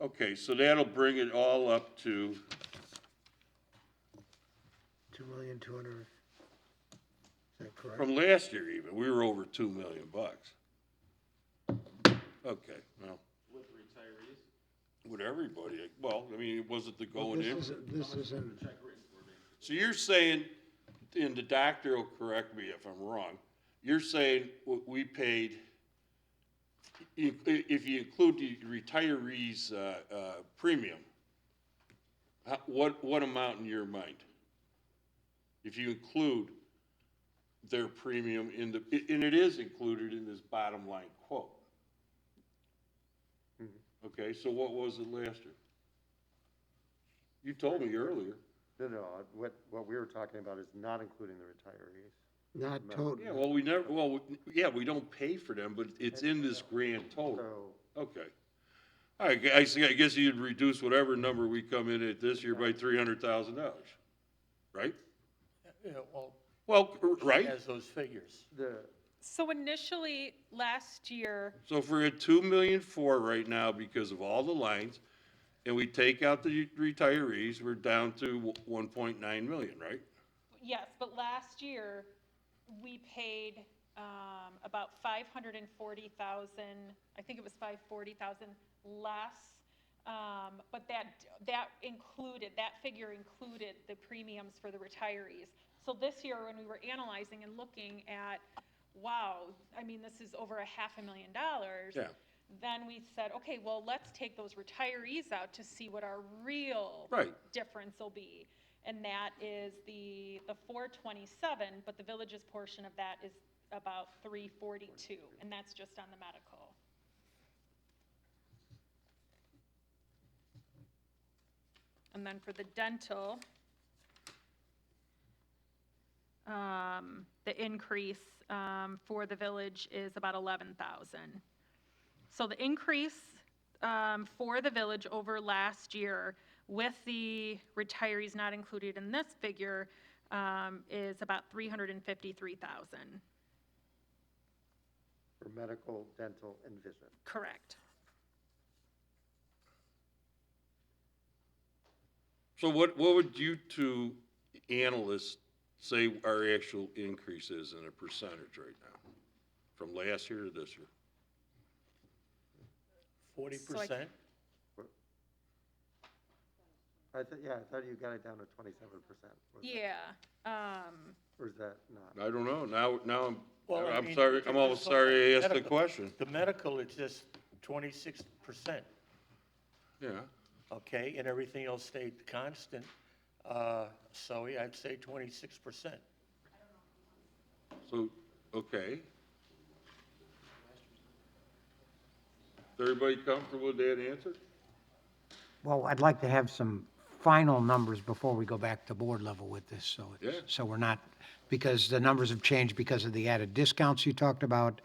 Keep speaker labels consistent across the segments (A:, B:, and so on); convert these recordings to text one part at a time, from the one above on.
A: Okay, so that'll bring it all up to,
B: Two million, two hundred, is that correct?
A: from last year even, we were over two million bucks. Okay, well,
C: With retirees?
A: with everybody, well, I mean, was it the
B: Well,
A: going in?
B: This isn't, this isn't,
C: Check written for me.
A: So you're saying, and the doctor will correct me if I'm wrong, you're saying what we paid, i- i- if you include the retirees, uh, uh, premium, how- what, what amount in your mind? If you include their premium in the, i- and it is included in this bottom line quote. Okay, so what was it last year? You told me earlier.
D: No, no, uh, what, what we were talking about is not including the retirees.
B: not
A: Yeah,
B: total,
A: well, we never, well, we- yeah, we don't pay for them, but it's in this grand total.
D: So,
A: Okay. All right, I see, I guess you'd reduce whatever number we come in at this year by three hundred thousand dollars, right?
E: Yeah, well,
A: Well, r-
E: he
A: right?
E: has those figures.
D: the,
F: So initially, last year,
A: So if we're at two million four right now because of all the lines, and we take out the retirees, we're down to one point nine million, right?
F: yes, but last year, we paid um, about 540,000, I think it was 540,000 less. um, But that, that included, that figure included the premiums for the retirees. So this year, when we were analyzing and looking at, wow, I mean, this is over a half a million dollars.
A: Yeah.
F: Then we said, okay, well, let's take those retirees out to see what our real
A: Right.
F: difference will be. And that is the, the four twenty-seven, but the village's portion of that is about three forty-two, and that's just on the medical. And then for the dental, um, the increase, um, for the village is about eleven thousand. So the increase um, for the village over last year with the retirees not included in this figure um, is about 353,000.
D: for medical, dental, and vision.
F: Correct.
A: So what, what would you two analysts say our actual increase is in a percentage right now? From last year to this year?
E: Forty
F: So I-
E: percent?
D: I thought, yeah, I thought you got it down to twenty-seven percent.
F: Yeah. um,
D: Or is that not?
A: I don't know, now, now I'm,
E: Well, I
A: I'm
E: mean,
A: sorry, I'm almost sorry I asked the
E: medical-
A: question.
E: The medical is just twenty-six percent,
A: Yeah,
E: okay, and everything else stayed constant. Uh, so yeah, I'd say twenty-six percent.
A: so, okay. Everybody comfortable with that answer?
G: Well, I'd like to have some final numbers before we go back to board level with this, so, it's-
A: Yeah.
G: so we're not, because the numbers have changed because of the added discounts you talked about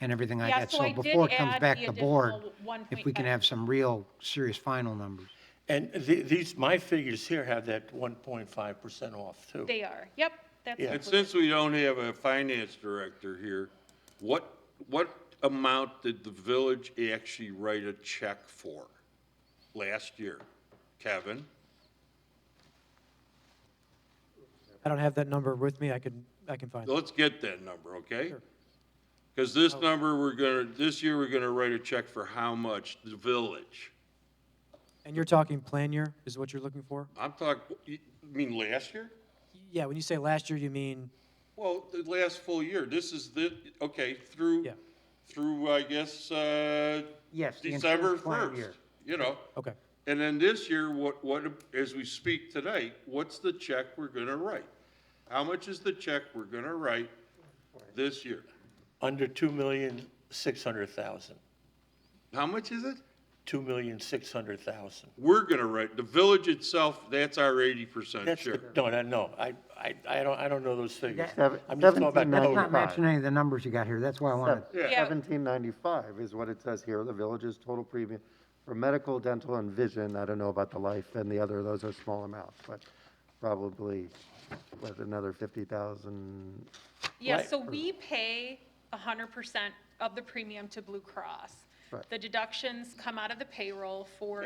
G: and everything like
F: Yeah,
G: that.
F: so I did
G: before it comes
F: add
G: back
F: the
G: to board,
F: additional
G: If we can
F: 1.5.
G: have some real, serious final numbers.
E: And th- these, my figures here have that one point five percent off too.
F: They are. Yep. That's
E: Yeah.
A: And
F: included.
A: since we don't have a finance director here, what, what amount did the village actually write a check for last year? Kevin?
H: I don't have that number with me. I can, I can find it.
A: Let's get that number, okay? Because this
G: Oh.
A: number, we're gonna, this year, we're gonna write a check for how much, the village?
H: And you're talking plan year is what you're looking for?
A: I'm talking, you mean last year?
H: Yeah, when you say last year, you mean,
A: Well, the last full year, this is the, okay, through,
H: Yeah.
A: through, I guess, uh,
G: Yes, the
A: December
G: insurance plan
A: first,
G: year.
A: you know?
H: okay,
A: And then this year, what, what, as we speak tonight, what's the check we're gonna write? How much is the check we're gonna write this year?
E: Under two million, six hundred thousand.
A: How much is it?
E: Two million, six hundred thousand.
A: We're gonna write, the village itself, that's our eighty percent
E: That's, the-
A: share.
E: no, no, no, I, I, I don't, I don't know those figures.
D: Seven-
E: I'm just talking about
G: That's
D: seventeen million.
E: total.
G: not matching any of the numbers you got here, that's why I wanted.
A: Yeah.
F: Yeah.
D: Seventeen ninety-five is what it says here, the village's total premium for medical, dental, and vision. I don't know about the life and the other, those are small amounts, but probably with another fifty thousand.
F: Yeah,
E: Right.
F: so we pay hundred percent of the premium to Blue Cross.
D: Right.
F: The deductions come out of the payroll for